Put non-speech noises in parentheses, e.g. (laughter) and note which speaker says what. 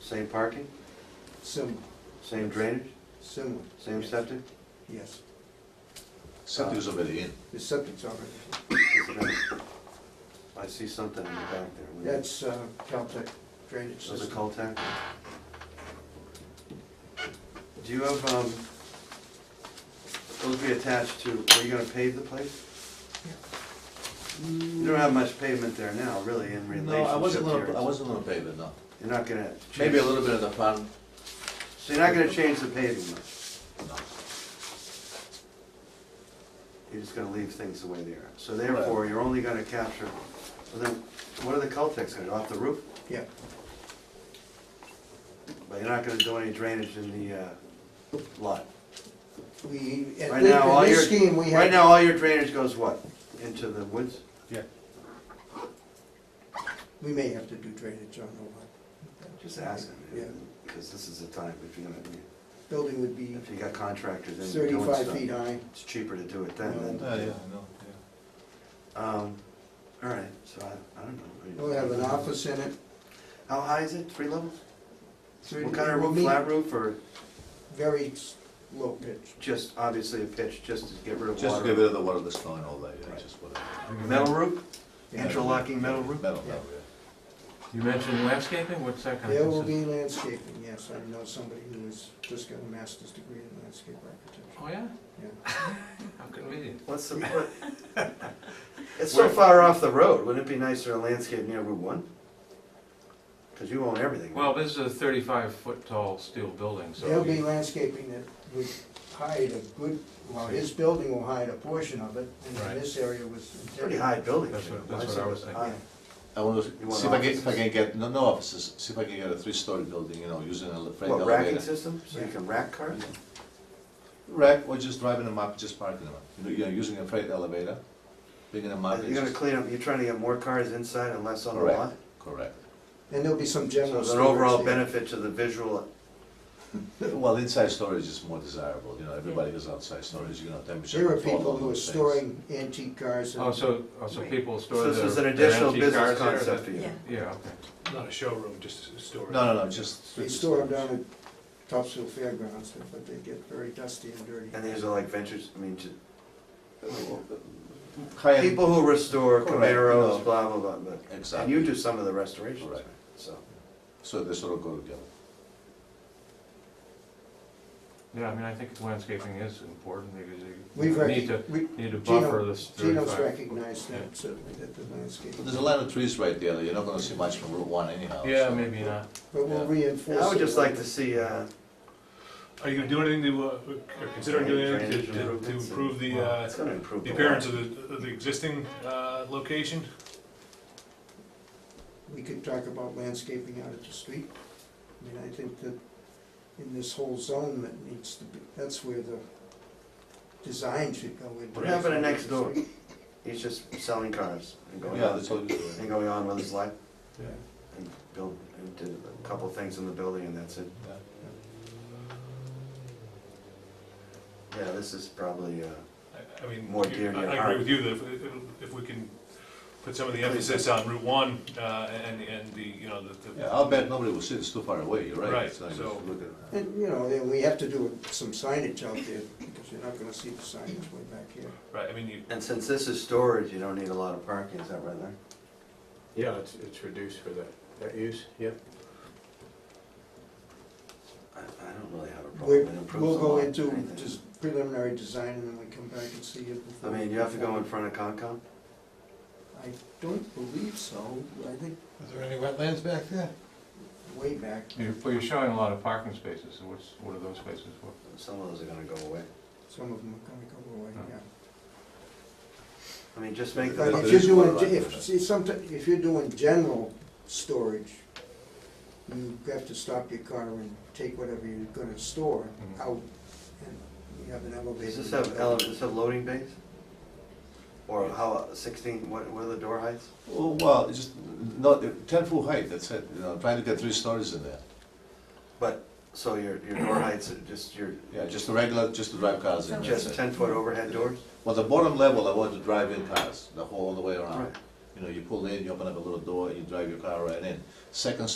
Speaker 1: Same parking,
Speaker 2: Similar,
Speaker 1: same drainage,
Speaker 2: similar.
Speaker 1: same
Speaker 2: Yes.
Speaker 1: septic?
Speaker 2: Yes,
Speaker 3: Something's already in.
Speaker 2: the septic's already,
Speaker 1: I see something in the back there.
Speaker 2: that's uh, Caltech drainage
Speaker 1: Those are
Speaker 2: system.
Speaker 1: cul-de-sac? Do you have, um, those be attached to, are you gonna pave the place? You don't have much pavement there now, really, in relationship to
Speaker 3: No, I wasn't
Speaker 1: your-
Speaker 3: gonna, I wasn't gonna pave it, no.
Speaker 1: You're not gonna.
Speaker 3: Maybe a
Speaker 1: change-
Speaker 3: little bit of the front,
Speaker 1: So you're not gonna change the paving much,
Speaker 3: no.
Speaker 1: you're just gonna leave things the way they are. So therefore, you're only gonna capture, well then, what are the cul-de-sacs gonna, go off the roof?
Speaker 2: Yeah,
Speaker 1: But you're not gonna do any drainage in the, uh, lot?
Speaker 2: we, at
Speaker 1: Right
Speaker 2: this-
Speaker 1: now, all
Speaker 2: in
Speaker 1: your,
Speaker 2: this scheme, we have.
Speaker 1: right now, all your drainage goes what? Into the woods?
Speaker 2: We may have to do drainage on the lot.
Speaker 1: Just asking,
Speaker 2: Yeah,
Speaker 1: because this is the time, if you're gonna,
Speaker 2: building would be
Speaker 1: if you got contractors in there doing
Speaker 2: thirty-five
Speaker 1: stuff,
Speaker 2: feet high.
Speaker 1: it's cheaper to do it then than,
Speaker 2: No.
Speaker 4: Oh, yeah, I know, yeah.
Speaker 1: um, all right, so I, I don't know. I mean-
Speaker 2: We'll have an office in it.
Speaker 1: How high is it, three levels?
Speaker 2: Three-
Speaker 1: What kind of
Speaker 2: we'll
Speaker 1: roof,
Speaker 2: meet
Speaker 1: flat roof, or
Speaker 2: Very s- low pitch.
Speaker 1: just, obviously a pitch, just to get rid of
Speaker 3: Just get
Speaker 1: water?
Speaker 3: rid of the water that's going all day, yeah, just whatever.
Speaker 1: Metal roof,
Speaker 2: Yeah.
Speaker 1: interlocking metal roof?
Speaker 3: Metal,
Speaker 2: Yeah.
Speaker 3: metal, yeah.
Speaker 5: You mentioned landscaping, what's that kind
Speaker 2: There will
Speaker 5: of? consist-
Speaker 2: be landscaping, yes, I know somebody who has just got a master's degree in landscape architecture.
Speaker 5: Oh, yeah?
Speaker 2: Yeah.
Speaker 5: How convenient.
Speaker 1: What's the, what?
Speaker 5: (laughs)
Speaker 1: It's so far off the road, wouldn't it be nicer to landscape near Route One? Because you own everything.
Speaker 5: Well, this is a thirty-five foot tall steel building, so.
Speaker 2: There'll be
Speaker 5: you-
Speaker 2: landscaping that would hide a good, well, his building will hide a portion of it, and then
Speaker 5: Right.
Speaker 2: this area was.
Speaker 1: Pretty high building.
Speaker 5: That's
Speaker 1: you know,
Speaker 5: what- that's what I was thinking.
Speaker 1: high.
Speaker 3: I want
Speaker 1: You
Speaker 3: to,
Speaker 1: want
Speaker 3: see if I can, if I
Speaker 1: offices?
Speaker 3: can get, no, no offices, see if I can get a three-story building, you know, using a freight
Speaker 1: What, racking
Speaker 3: elevator.
Speaker 1: system, so you can rack cars?
Speaker 3: Rack, or just driving them up, just parking them up, you know, you're using a freight elevator, bringing them up.
Speaker 1: You're gonna
Speaker 3: just-
Speaker 1: clean up, you're trying to get more cars inside and less on the
Speaker 3: Correct.
Speaker 1: lot?
Speaker 3: Correct. (laughs)
Speaker 2: And there'll be some
Speaker 1: So
Speaker 2: general.
Speaker 1: there's an overall
Speaker 2: storage there.
Speaker 1: benefit to the visual,
Speaker 3: Well, inside storage is more desirable, you know, everybody has outside storage, you know, temperature.
Speaker 2: There are
Speaker 3: control,
Speaker 2: people
Speaker 3: all
Speaker 2: who are
Speaker 3: those things.
Speaker 2: storing antique cars
Speaker 5: Oh,
Speaker 2: and
Speaker 5: so, oh, so
Speaker 6: Right.
Speaker 5: people
Speaker 1: so
Speaker 5: store
Speaker 1: this
Speaker 5: their.
Speaker 1: is an
Speaker 5: their
Speaker 1: additional
Speaker 5: antique
Speaker 1: business
Speaker 5: cars there,
Speaker 1: concept for
Speaker 5: that-
Speaker 1: you.
Speaker 6: Yeah.
Speaker 5: Yeah, okay.
Speaker 4: Not a showroom, just a store.
Speaker 3: No, no, no, just.
Speaker 2: they store them down at Topsfield Fairgrounds, but they get very dusty and dirty.
Speaker 1: And these are like ventures, I mean, ju-
Speaker 3: High-end,
Speaker 1: people who restore
Speaker 3: Correct, no.
Speaker 1: Camaros, blah, blah, blah, but, and
Speaker 3: exactly.
Speaker 1: you do some of the restorations,
Speaker 3: Correct.
Speaker 1: right? so.
Speaker 3: So they sort of go together.
Speaker 5: Yeah, I mean, I think landscaping is important because
Speaker 2: We've,
Speaker 5: you need to,
Speaker 2: rec- we,
Speaker 5: need to
Speaker 2: Gino-
Speaker 5: buffer this thirty-five.
Speaker 2: Gino's recognized
Speaker 5: Yeah.
Speaker 2: that, certainly, that the landscape.
Speaker 3: But There's a lot of trees right there, that you're not gonna see much from Route One anyhow.
Speaker 5: Yeah,
Speaker 3: so-
Speaker 5: maybe not.
Speaker 2: But we'll
Speaker 3: Yeah.
Speaker 2: reinforce.
Speaker 1: I would
Speaker 2: it
Speaker 1: just
Speaker 2: with-
Speaker 1: like to see, uh,
Speaker 4: Are you gonna do anything to, uh, or considering doing anything to- to, to improve the, uh,
Speaker 1: it's gonna improve.
Speaker 4: the
Speaker 1: lot.
Speaker 4: appearance of the, of the existing, uh, location?
Speaker 2: We could talk about landscaping out at the street. I mean, I think that in this whole zone that needs to be, that's where the design should go in.
Speaker 1: What happened to next door? He's just selling cars and going
Speaker 3: Yeah,
Speaker 1: on,
Speaker 3: that's all you
Speaker 1: and going on with his life, and build, and did a couple things in the building and that's it. Yeah, this is probably, uh,
Speaker 4: I- I mean,
Speaker 1: More dear to
Speaker 4: I-
Speaker 1: your
Speaker 4: I
Speaker 1: heart.
Speaker 4: agree with you that if, if we can put some of the emphasis on Route One, uh, and, and the, you know, the. the-
Speaker 3: Yeah, I'll bet nobody will see, it. it's too far away, you're right.
Speaker 4: Right,
Speaker 3: It's not even
Speaker 4: so-
Speaker 3: look at it.
Speaker 2: And, you know, then we have to do some signage out there, because you're not gonna see the signage way back here.
Speaker 4: Right, I mean, you,
Speaker 1: and since this is storage, you don't need a lot of parking, is that right there?
Speaker 7: Yeah, it's, it's reduced for that, that use, yeah.
Speaker 1: I, I don't really have a
Speaker 2: We're-
Speaker 1: problem, it improves
Speaker 2: We'll
Speaker 1: the
Speaker 2: go
Speaker 1: lot,
Speaker 2: into
Speaker 1: anything.
Speaker 2: just preliminary design, and then we come back and see it
Speaker 1: I
Speaker 2: before.
Speaker 1: mean, you have to go in front of Concom?
Speaker 2: I don't believe so, I think
Speaker 4: Is there any wetlands back there?
Speaker 2: way back,
Speaker 5: You're, well, you're showing a lot of parking spaces, so what's, what are those spaces for?
Speaker 1: Some of those are gonna go away.
Speaker 2: some of them are gonna go away, yeah.
Speaker 1: I mean, just make
Speaker 2: But
Speaker 1: the,
Speaker 2: if
Speaker 3: it
Speaker 2: you're
Speaker 3: is quite a
Speaker 2: doing,
Speaker 3: lot,
Speaker 2: if,
Speaker 3: yeah.
Speaker 2: see, sometimes, if you're doing general storage, you have to stop your car and take whatever you're gonna store
Speaker 5: Mhm.
Speaker 2: out, and you have an elevator.
Speaker 1: does this have, ele- does this have loading bays? Or how, sixteen, what, what are the door heights?
Speaker 3: Oh, well, it's just, no, ten foot height, that's it, you know, trying to get three stories in there.
Speaker 1: But, so your, your door heights are just your,
Speaker 3: Yeah, just a regular, just to drive cars in, that's
Speaker 1: just
Speaker 3: it.
Speaker 1: ten foot overhead doors?
Speaker 3: Well, the bottom level, I want to drive in cars, the whole, all the way around.
Speaker 1: Right.
Speaker 3: You know, you pull in, you open up a little door, you drive your car right in. Second